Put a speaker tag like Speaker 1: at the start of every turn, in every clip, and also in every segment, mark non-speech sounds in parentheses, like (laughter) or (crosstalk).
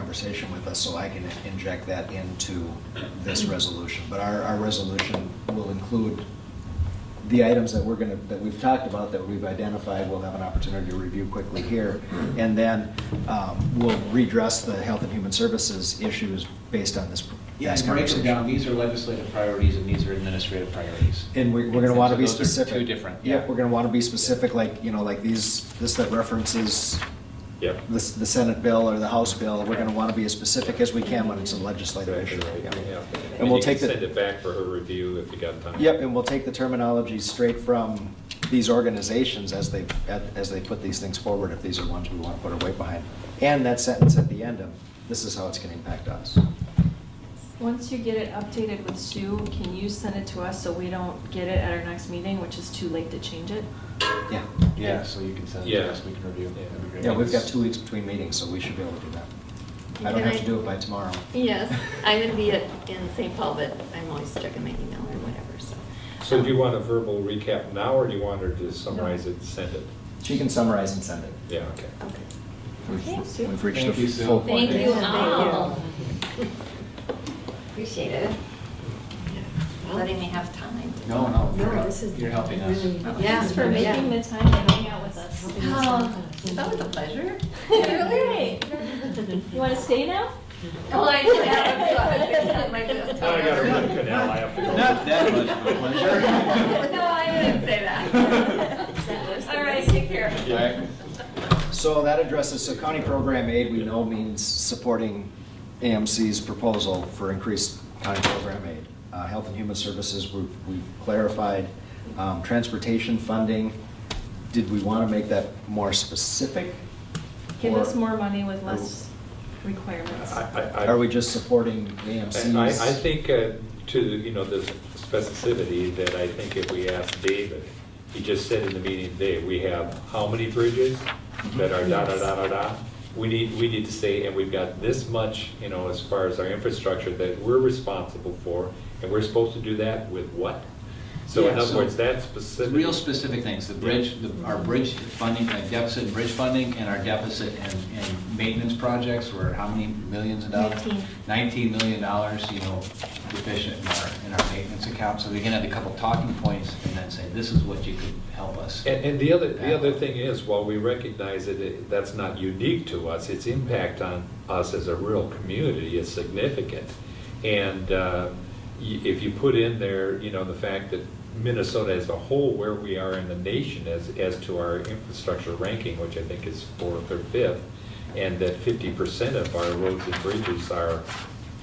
Speaker 1: conversation with us, so I can inject that into this
Speaker 2: Mm-hmm.
Speaker 1: resolution. But our, our resolution will include the items that we're gonna, that we've talked about, that we've identified, we'll have an opportunity to review quickly here.
Speaker 2: Mm-hmm.
Speaker 1: And then, um, we'll redress the health and human services issues based on this
Speaker 2: Yeah,
Speaker 1: past
Speaker 2: and break them down,
Speaker 1: conversation.
Speaker 2: these are legislative priorities and these are administrative priorities.
Speaker 1: And we're, we're gonna wanna be
Speaker 2: So those are
Speaker 1: specific.
Speaker 2: two different, yeah.
Speaker 1: Yep, we're gonna wanna be specific, like, you know, like these, this that references
Speaker 3: Yep.
Speaker 1: the, the Senate bill or the House bill, we're gonna wanna be as specific as we can when it's a legislative issue.
Speaker 3: Yeah.
Speaker 1: And we'll
Speaker 3: you
Speaker 1: take
Speaker 3: can
Speaker 1: the-
Speaker 3: Send it back for her review if you got time.
Speaker 1: Yep, and we'll take the terminology straight from these organizations as they, as they put these things forward, if these are ones we want to put our weight behind. And that sentence at the end of, this is how it's going to impact us.
Speaker 4: Once you get it updated with Sue, can you send it to us so we don't get it at our next meeting, which is too late to change it?
Speaker 1: Yeah.
Speaker 2: Yeah, so you can send it
Speaker 3: Yeah.
Speaker 2: to us, we can review.
Speaker 3: Yeah.
Speaker 2: That'd be great.
Speaker 1: Yeah, we've got two weeks between meetings, so we should be able to do that. I don't have to do it by tomorrow.
Speaker 5: Yes, I'm gonna be at- in St. Paul, but I'm always checking my email or whatever, so.
Speaker 3: So do you want a verbal recap now, or do you want her to summarize it, and send it?
Speaker 1: She can summarize and send it.
Speaker 3: Yeah, okay.
Speaker 5: Okay.
Speaker 1: We've-
Speaker 5: Okay, Sue.
Speaker 1: We've reached
Speaker 2: Thank
Speaker 1: the
Speaker 2: you, Sue.
Speaker 1: full point.
Speaker 5: Thank
Speaker 6: Thank
Speaker 5: you all.
Speaker 6: you.
Speaker 5: (laughs) Appreciate it. Letting me have time. to-
Speaker 2: No, no,
Speaker 6: No,
Speaker 2: you're-
Speaker 6: this is
Speaker 2: you're helping us.
Speaker 6: really-
Speaker 5: Oh,
Speaker 6: Yeah.
Speaker 4: Thanks for making the time to hang out with us.
Speaker 5: Oh, that was a pleasure.
Speaker 4: (laughs)
Speaker 5: (laughs)
Speaker 4: Really? You want to stay now?
Speaker 5: Well, Oh, I did (laughs) have a pleasure.
Speaker 3: I got a root canal, I have to go.
Speaker 2: Not that much of a pleasure.
Speaker 5: No, I didn't say that. All right, take care.
Speaker 2: Right.
Speaker 1: So that addresses, so county program aid, we know means supporting AMC's proposal for increased county program aid. Uh, Health and Human Services, we've we've clarified. Um, Transportation funding, did we want to make that more specific?
Speaker 4: Give us
Speaker 1: Or-
Speaker 4: more money with less requirements.
Speaker 3: I- I- I-
Speaker 1: Are we just supporting AMC's?
Speaker 3: I, I I think uh, to, the- you know, the specificity that I think if we ask David, he just said in the meeting today, we have how many bridges
Speaker 2: Mm-hmm.
Speaker 3: that are da, da, da, da, da? We need, we need to say, and we've got this much, you know, as far as our infrastructure that we're responsible for, and we're supposed to do that with what? So in
Speaker 2: Yeah,
Speaker 3: other
Speaker 2: so
Speaker 3: words, that
Speaker 2: It's
Speaker 3: specific.
Speaker 2: Real specific things, the bridge, the- our bridge funding, uh, deficit, and bridge funding, and our deficit and, and maintenance projects were how many millions of dollars?
Speaker 4: Nineteen.
Speaker 2: Nineteen million dollars, you know, deficient in our, in our maintenance account, so we can have a couple talking points and then say, this is what you could help us.
Speaker 3: And, and the other, the other thing is, while we recognize that it- that's not unique to us, its impact on us as a rural community is significant. And uh, y- if you put in there, you know, the fact that Minnesota as a whole, where we are in the nation as, as to our infrastructure ranking, which I think is fourth or fifth, and that fifty percent of our roads and bridges are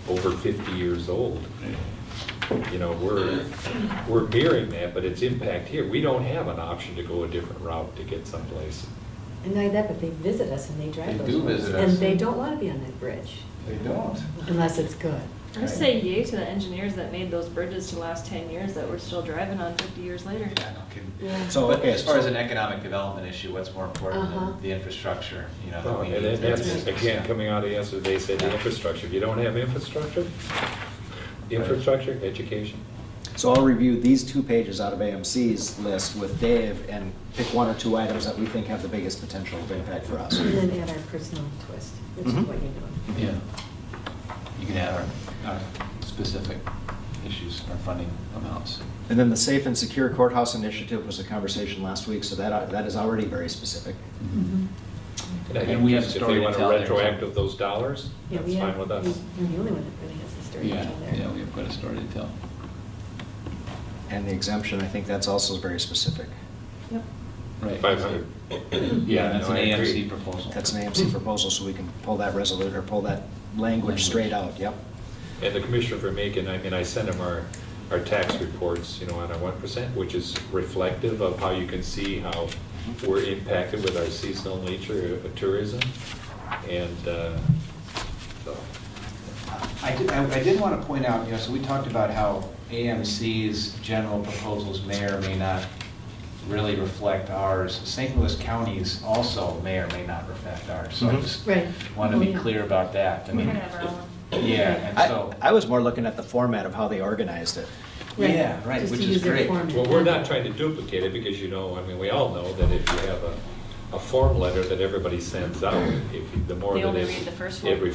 Speaker 3: over fifty years old, you know, we're, we're mirroring that, but its impact here, we don't have an option to go a different route to get someplace.
Speaker 6: And not only that, but they visit us and they drive
Speaker 2: They
Speaker 6: those
Speaker 2: do
Speaker 6: roads.
Speaker 2: visit
Speaker 6: And
Speaker 2: us.
Speaker 6: they don't want to be on that bridge,
Speaker 2: They don't.
Speaker 6: unless it's good.
Speaker 4: I say yay to the engineers that made those bridges to last 10 years that we're still driving on 50 years later.
Speaker 2: Yeah, no kidding.
Speaker 6: Yeah.
Speaker 1: So,
Speaker 2: But
Speaker 1: okay,
Speaker 2: as far as
Speaker 1: so-
Speaker 2: an economic development issue, what's more important
Speaker 6: Uh-huh.
Speaker 2: than the infrastructure, you know? that we
Speaker 3: And
Speaker 2: need
Speaker 3: then
Speaker 2: to-
Speaker 3: that's, again, coming out of yesterday, they said the
Speaker 2: Yeah.
Speaker 3: infrastructure, if you don't have infrastructure, infrastructure, education.
Speaker 1: So I'll review these two pages out of AMC's list with Dave and pick one or two items that we think have the biggest potential of impact for us.
Speaker 6: And then add our personal twist, which is
Speaker 1: Mhm.
Speaker 6: what you know.
Speaker 2: Yeah. You can add our, our specific issues, our funding amounts.
Speaker 1: And then the Safe and Secure Courthouse Initiative was a conversation last week, so that, uh, that is already very specific.
Speaker 2: Mm-hmm.
Speaker 3: I
Speaker 2: And
Speaker 3: think
Speaker 2: we have
Speaker 3: just
Speaker 2: a story to tell there, so-
Speaker 3: If they want to retroactive those dollars,
Speaker 6: Yeah,
Speaker 3: that's
Speaker 6: we have-
Speaker 3: fine with us.
Speaker 6: we- We're the only one that really has a story to
Speaker 2: Yeah,
Speaker 6: tell there.
Speaker 2: yeah, we have quite a story to tell.
Speaker 1: And the exemption, I think that's also very specific.
Speaker 4: Yep.
Speaker 2: Right.
Speaker 3: Five hundred.
Speaker 2: Yeah, that's
Speaker 3: No,
Speaker 2: an
Speaker 3: I
Speaker 2: AMC
Speaker 3: agree.
Speaker 2: proposal.
Speaker 1: That's an
Speaker 2: Hmm.
Speaker 1: AMC proposal, so we can pull that resolution, or pull that language straight out, yep.
Speaker 3: And the commissioner for Macon, I mean, I sent him our, our tax reports, you know, on our one percent, which is reflective of how you can see how we're impacted with our seasonal nature of tourism. And, uh, so,
Speaker 2: I did, I I did want to point out, you know, so we talked about how AMC's general proposals may or may not really reflect ours. St. Louis counties also may or may not reflect ours, so I
Speaker 1: Mhm.
Speaker 2: just
Speaker 6: Right.
Speaker 2: want to
Speaker 6: Oh,
Speaker 2: be
Speaker 4: Mm-hmm.
Speaker 6: yeah.
Speaker 2: clear about that. I
Speaker 4: We're
Speaker 2: mean,
Speaker 4: gonna have our own.
Speaker 2: Yeah, and
Speaker 1: I,
Speaker 2: so.
Speaker 1: I was more looking at the format of how they organized it.
Speaker 6: Right.
Speaker 2: Yeah, right,
Speaker 6: Just
Speaker 2: which
Speaker 6: to
Speaker 2: is
Speaker 6: use their
Speaker 2: great.
Speaker 6: format.
Speaker 3: well, we're not trying to duplicate it because, you know, I mean, we all know that if you have a, a form letter that everybody sends out, if, you- the more
Speaker 4: They
Speaker 3: that
Speaker 4: only
Speaker 3: it.
Speaker 4: read the first one.
Speaker 3: It